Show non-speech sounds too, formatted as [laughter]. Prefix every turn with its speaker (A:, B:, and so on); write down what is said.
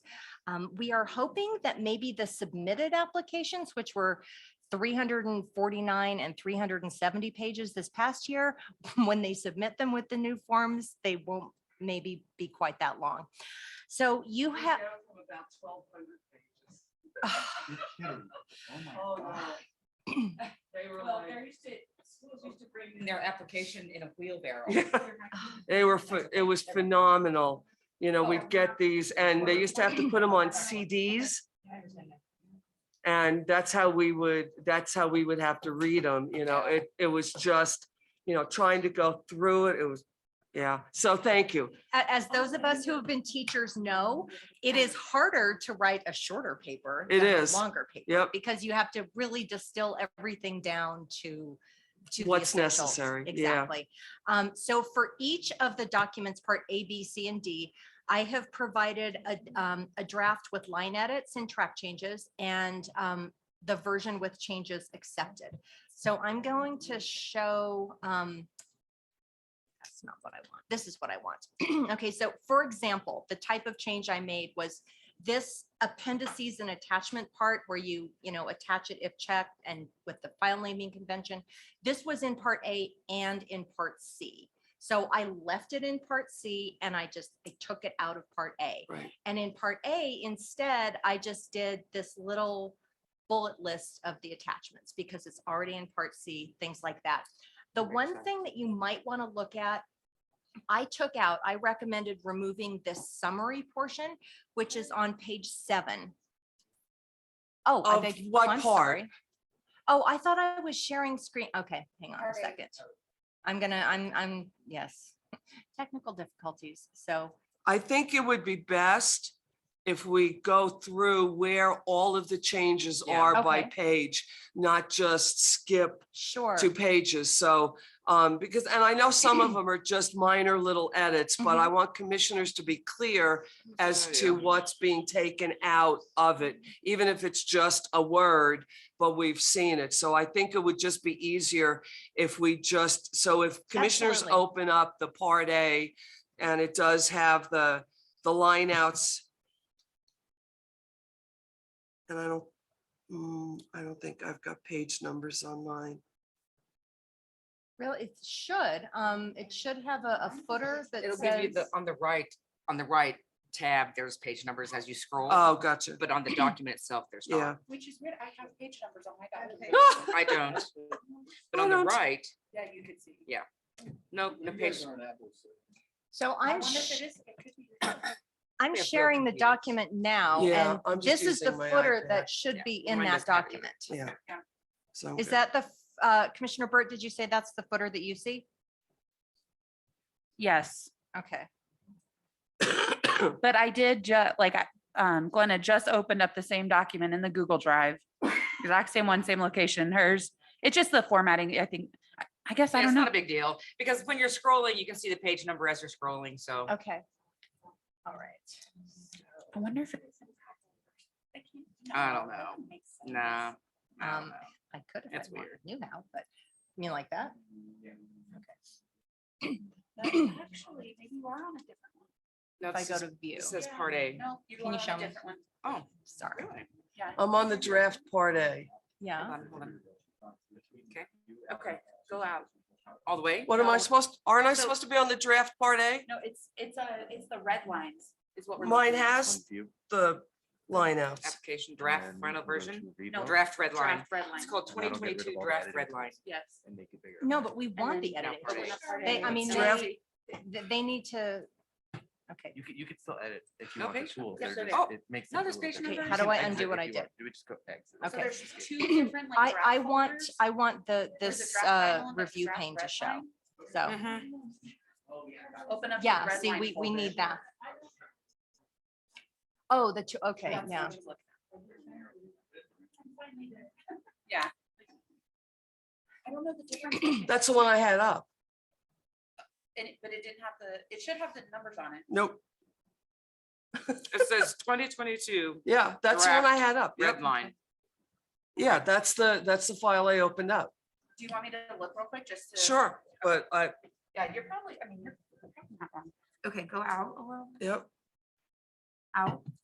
A: Um, we are hoping that maybe the submitted applications, which were three hundred and forty-nine and three hundred and seventy pages this past year, [laughs] when they submit them with the new forms, they won't maybe be quite that long. So you have, [sighs]
B: About twelve hundred pages.
C: You're kidding. Oh my
B: Oh,
C: God.
B: no.
A: [clears throat]
B: They were
D: Well,
B: like.
D: there used to, schools used to bring
A: [laughs]
D: in their application in a
E: [laughs]
D: wheelbarrow.
F: They were, ph- it was phenomenal. You know, we'd get these and they used to have to put them on CDs. And that's how we would, that's how we would have to read them, you know, it, it was just, you know, trying to go through it. It was, yeah. So thank you.
A: a- as those of us who have been teachers know, it is harder to write a shorter paper.
F: It
A: than a
F: is.
A: Longer paper.
F: Yep.
A: Because you have to really distill everything down to. to the
F: What's
A: essentials.
F: necessary, yeah.
A: Exactly. Um, so for each of the documents, part A, B, C, and D, I have provided a, um, a draft with line edits and track changes and, um, the version with changes accepted. So I'm going to show, um, that's not what I want. This is what I want. [clears throat] Okay, so for example, the type of change I made was this appendices and attachment part where you, you know, attach it if checked and with the file naming convention. This was in part A and in part C. So I left it in part C and I just, I took it out of part A.
F: Right.
A: And in part A, instead, I just did this little bullet list of the attachments because it's already in part C, things like that. The
F: Makes
A: one
F: sense.
A: thing that you might want to look at, I took out, I recommended removing this summary portion, which is on page seven. Oh, I
F: Of
A: beg,
F: what
A: I'm
F: part?
A: sorry. Oh, I thought I was sharing screen. Okay, hang on a
D: Alright.
A: second. I'm gonna, I'm, I'm, yes, [laughs] technical difficulties. So
F: I think it would be best if we go through where all of the changes
D: Yeah.
F: are by
A: Okay.
F: page, not just skip
A: sure.
F: two pages, so, um, because, and I know some of them are just minor little edits, but
A: Mm-hmm.
F: I want commissioners to be clear as
C: Oh,
F: to what's being taken out of it, even if it's just a word, but we've seen it. So I think it would just be easier if we just, so if commissioners
A: Absolutely.
F: open up the part A and it does have the, the line outs. And I don't, mm, I don't think I've got page numbers online.
A: Really, it should, um, it should have a, a footer that
D: It'll give you the,
A: says.
D: on the right, on the right tab, there's page numbers as you scroll,
F: Oh, gotcha.
D: but on the document itself, there's
F: Yeah.
D: not.
G: Which is weird, I have page numbers on my document.
D: I
A: [laughs]
D: don't. But
F: I
A: Oh,
D: on the
F: don't.
D: right,
G: Yeah, you could see.
D: Yeah. no,
C: You
D: Oh, the page,
C: guys aren't apples.
A: So
G: I
A: I'm,
G: wonder if
A: sh-
G: it is, it could be.
A: I'm
D: we have real
A: sharing the
D: computers.
A: document now
F: Yeah,
A: and
F: I'm just
A: this is the
F: using my
A: footer
F: iPad.
A: that should
D: Yeah,
A: be in
D: mine
A: that
D: doesn't have it
A: document.
F: Yeah,
G: Yeah.
F: so.
A: Is that the, f- uh, Commissioner Burt, did you say that's the footer that you see?
E: Yes,
A: Okay,
E: but I did ju, like, I- um, Glenna just opened up the same document in the Google Drive. Exact same one, same location, hers. It's just the formatting, I think. I- I guess I
D: it's
E: don't
D: not
E: know.
D: a big deal, because when you're scrolling, you can see the page number as you're scrolling, so.
A: okay. All right.
E: I wonder if,
D: I don't know. Nah. I don't
A: Um,
D: know.
A: I could if I
D: That's
A: wanted-
D: weird.
A: knew how, but you mean like that?
G: Actually, maybe you are on a different
D: [clears throat]
G: one.
D: No,
A: If I
D: this
A: go
D: is-
A: to view,
D: It says part A.
G: No, you
A: Can
G: are
A: you
G: on
A: show
G: a
A: me?
G: different one.
D: Oh,
A: sorry.
D: really?
G: Yeah.
F: I'm on the draft part A.
A: Yeah.
D: Hold on, hold on. Okay, okay, go out. All the way?
F: What am I supposed, aren't I
G: So-
F: supposed to be on the draft part A?
G: No, it's, it's a, it's the red lines.
D: Is what we're.
F: Mine
D: looking at.
F: has the lineouts.
D: Application draft, final version,
C: No,
D: draft red line.
G: Draft red line.
D: It's called
C: And that'll
D: twenty
C: get rid of
D: twenty-two
C: all the
D: draft
C: editing
D: red line.
G: Yes.
C: And make it bigger.
A: No, but we want
G: then
A: the
D: now
A: editing.
D: part A.
A: tools.
G: Part
A: They,
G: A.
A: I mean,
F: Draft-
A: they, th- they need to, okay.
C: You could, you could still edit if you
D: No
C: want the
D: page
C: tool.
G: numbers.
C: They're
D: Yes, there
C: just- it makes
D: Oh, No,
C: it a
D: there's
C: little
D: page
C: bit-
D: numbers.
C: you
A: How
C: can
A: do I
C: exit
A: undo what
C: if
A: I
C: you
A: did?
C: want. Do we just go exit?
A: Okay.
G: So there's two different like.
A: I,
G: draft
A: I want,
G: folders.
A: I want the,
G: There's a
A: this,
G: draft red
A: uh,
G: line, there's a
A: review
G: draft
A: pane to
G: red
A: show.
G: line.
A: So,
D: Mhm.
F: oh.
G: Open up. the
A: yeah,
G: red
A: see,
G: line
A: we, we
G: folder.
A: need that. Oh, the two, okay,
G: That's
A: yeah.
G: what you're looking at. Yeah. I don't know the
A: [clears throat]
G: difference.
F: That's the one I had up.
G: And it- but it didn't have the, it should have the numbers on it.
F: Nope.
D: It says twenty twenty-two
F: Yeah, that's the one I had up. Yep.
D: red line.
F: Yeah, that's the, that's the file I opened up.
G: Do you want me to look real quick just to?
F: Sure, but I,
G: Yeah, you're probably, I mean, you're. you're probably not wrong. Okay, go out a little.
F: yep.